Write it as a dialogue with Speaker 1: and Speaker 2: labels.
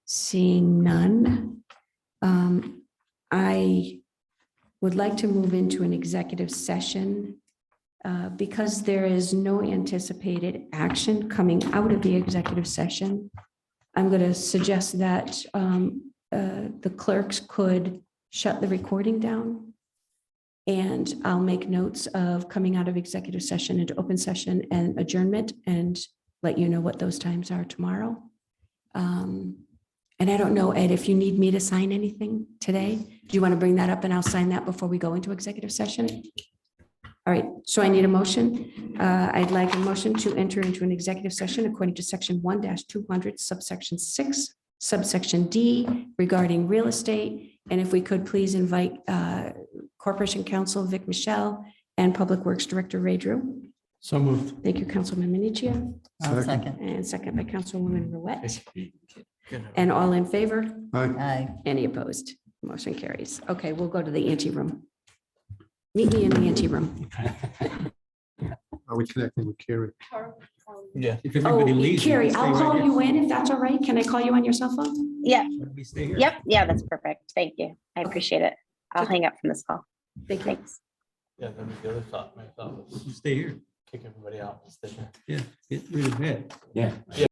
Speaker 1: Seeing none. um, I would like to move into an executive session uh, because there is no anticipated action coming out of the executive session. I'm going to suggest that um, uh, the clerks could shut the recording down. And I'll make notes of coming out of executive session into open session and adjournment and let you know what those times are tomorrow. Um, And I don't know, Ed, if you need me to sign anything today, do you want to bring that up and I'll sign that before we go into executive session? All right, so I need a motion. Uh, I'd like a motion to enter into an executive session according to section one two hundred subsection six subsection D regarding real estate. And if we could please invite uh, Corporation Counsel Vic Michelle and Public Works Director Ray Drew.
Speaker 2: So moved.
Speaker 1: Thank you, Councilman Minichia.
Speaker 3: I'll
Speaker 2: Second.
Speaker 3: second.
Speaker 1: And second by Councilwoman Ruette. And all in favor?
Speaker 3: Aye.
Speaker 1: Any opposed? Motion carries. Okay, we'll go to the ante room. Meet me in the ante room.
Speaker 4: Are we connecting with Carrie?
Speaker 2: Yeah. If everybody
Speaker 1: Oh,
Speaker 2: leaves.
Speaker 1: Carrie, I'll call you in if that's all right. Can I call you on your cell phone?
Speaker 5: Yeah,
Speaker 2: We stay here.
Speaker 5: yep, yeah,
Speaker 1: Mm.
Speaker 5: that's perfect. Thank you. I appreciate it. I'll hang up from this call.
Speaker 1: Thank you.
Speaker 5: Thanks.
Speaker 6: Yeah, that was the other thought, my thought was
Speaker 2: You Stay here.
Speaker 6: kick everybody out. just didn't it?
Speaker 2: Yeah. Get rid of that.
Speaker 7: Yeah.